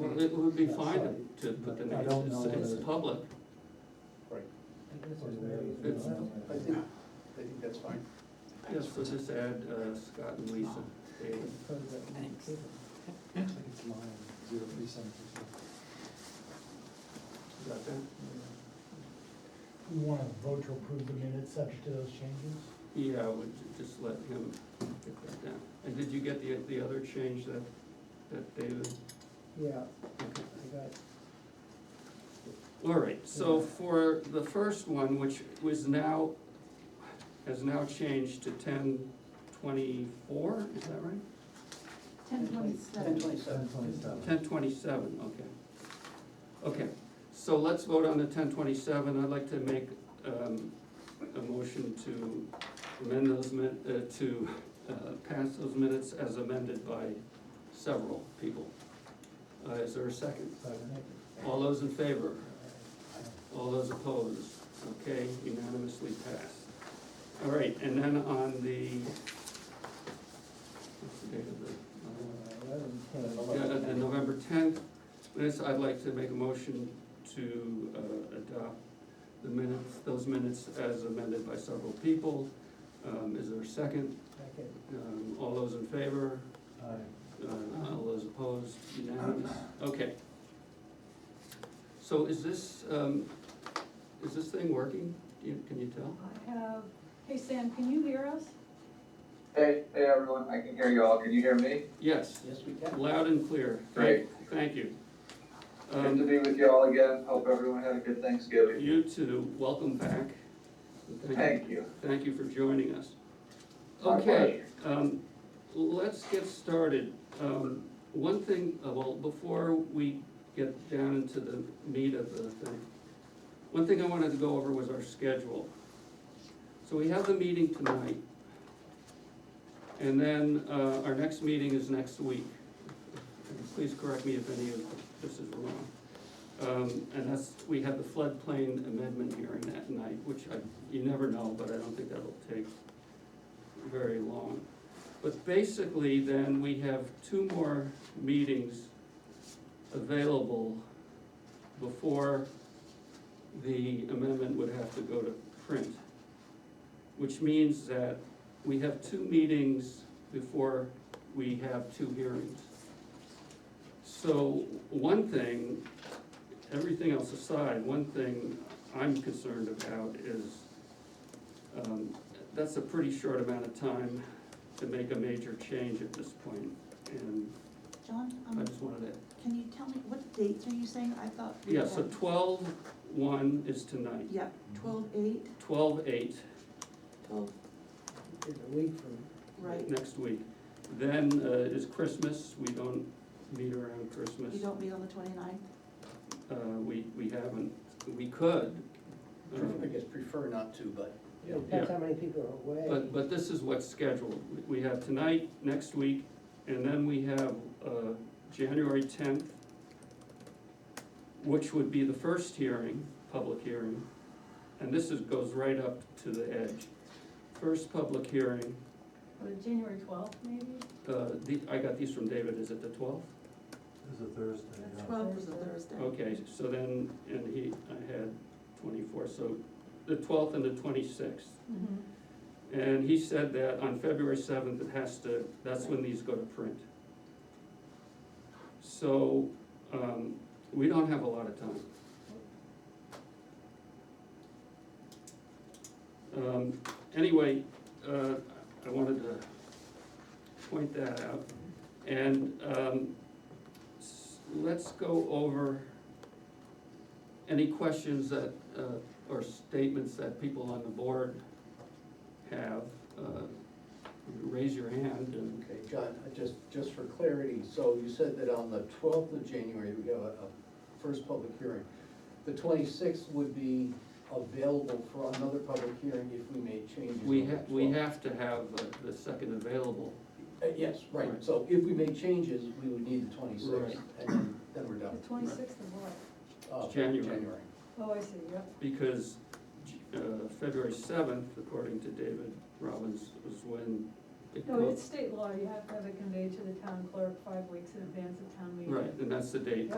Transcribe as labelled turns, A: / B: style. A: it would be fine to put the
B: I
A: names,
B: don't
A: it's,
B: know
A: it's
B: whether-
A: public. It's-
C: I think, I think that's fine.
A: Yes, so just add uh, Scott and Lisa. Dave.
D: Thanks.
B: I think it's line zero three seven two.
A: Is that them?
E: We want to vote to approve the minutes subject to those changes?
A: Yeah, I would ju- just let him get that down. And did you get the, the other change that, that David?
D: Yeah,
A: Okay.
D: I got,
A: All right, so for the first one, which was now, has now changed to ten twenty-four, is that right?
F: Ten
C: Ten
F: twenty-seven.
C: twenty-seven.
A: Ten twenty-seven, okay. Okay, so let's vote on the ten twenty-seven, I'd like to make, um, a motion to amend those min, uh, to, uh, pass those minutes as amended by several people. Uh, is there a second? All those in favor? All those opposed? Okay, unanimously passed. All right, and then on the, what's the date of the? uh, Yeah, uh, the November tenth, minutes, I'd like to make a motion to uh, adopt the minutes, those minutes as amended by several people. Um, Is there a second?
D: okay.
A: Um, All those in favor? Uh, All those opposed? Unanimous? Okay. So is this, um, is this thing working? Do you- Can you tell?
F: I
G: Uh,
F: have, hey Sam, can you hear us?
H: Hey, hey everyone, I can hear you all, can you hear me?
A: Yes,
C: Yes, we can.
A: loud and clear. Thank- Thank you.
H: Good
A: Um,
H: to be with you all again, hope everyone had a good Thanksgiving.
A: You too, welcome back. Thank you.
H: Thank you.
A: Thank you for joining us.
H: My
A: Okay, um, let's get started. Um, one thing, uh, well, before we get down into the meat of the thing, one thing I wanted to go over was our schedule. So we have the meeting tonight. And then, uh, our next meeting is next week. Please correct me if any of this is wrong. Um, and that's, we have the floodplain amendment hearing that night, which I, you never know, but I don't think that'll take very long. But basically, then, we have two more meetings available before the amendment would have to go to print. Which means that we have two meetings before we have two hearings. So, one thing everything else aside, one thing I'm concerned about is, um, that's a pretty short amount of time to make a major change at this point, and
F: John,
A: I
F: um,
A: just wanted to,
F: can you tell me, what dates are you saying? I thought. we
A: yeah, so
F: had-
A: twelve one is tonight,
F: Yeah, twelve eight,
A: twelve eight
F: twelve,
D: It's a week from.
F: right,
A: next week. Then, uh, is Christmas, we don't meet around Christmas.
F: you don't meet on the twenty-ninth?
A: Uh, we, we haven't, we could, um,
C: I guess prefer not to, but.
D: It Depends how many people are away.
A: But, but this is what's scheduled. We have tonight, next week, and then we have, uh, January tenth, which would be the first hearing, public hearing, and this is, goes right up to the edge. First public hearing,
F: Uh, January twelfth, maybe?
A: uh, the, I got these from David, is it the twelfth?
B: This is a Thursday,
F: Twelve was a Thursday.
A: Okay, so then, and he, I had twenty-four, so the twelfth and the twenty-sixth.
G: Mm-hmm.
F: Mhm.
A: And he said that on February seventh, it has to, that's when these go to print. So, um, we don't have a lot of time. Um, anyway, uh, I wanted to point that out. And, um, s- let's go over any questions that, uh, or statements that people on the board have, uh, raise your hand and,
C: Okay, John, I just, just for clarity, so you said that on the twelfth of January, we have a, a first public hearing. The twenty-sixth would be available for another public hearing if we made changes.
A: we
C: on the
A: ha- we
C: 12th.
A: have to have uh, the second available.
C: Uh, Yes, right,
A: Right.
C: so if we made changes, we would need the
A: Right.
C: twenty-sixth, and then, then we're done.
G: The twenty-sixth of
C: Uh,
G: what?
A: January.
C: January.
G: Oh, I see, yep.
A: Because, uh, February seventh, according to David Robbins, was when it
G: No,
A: goes.
G: it's state law, you have to have it conveyed to the town clerk five weeks in advance of town meeting.
A: Right, and that's the date.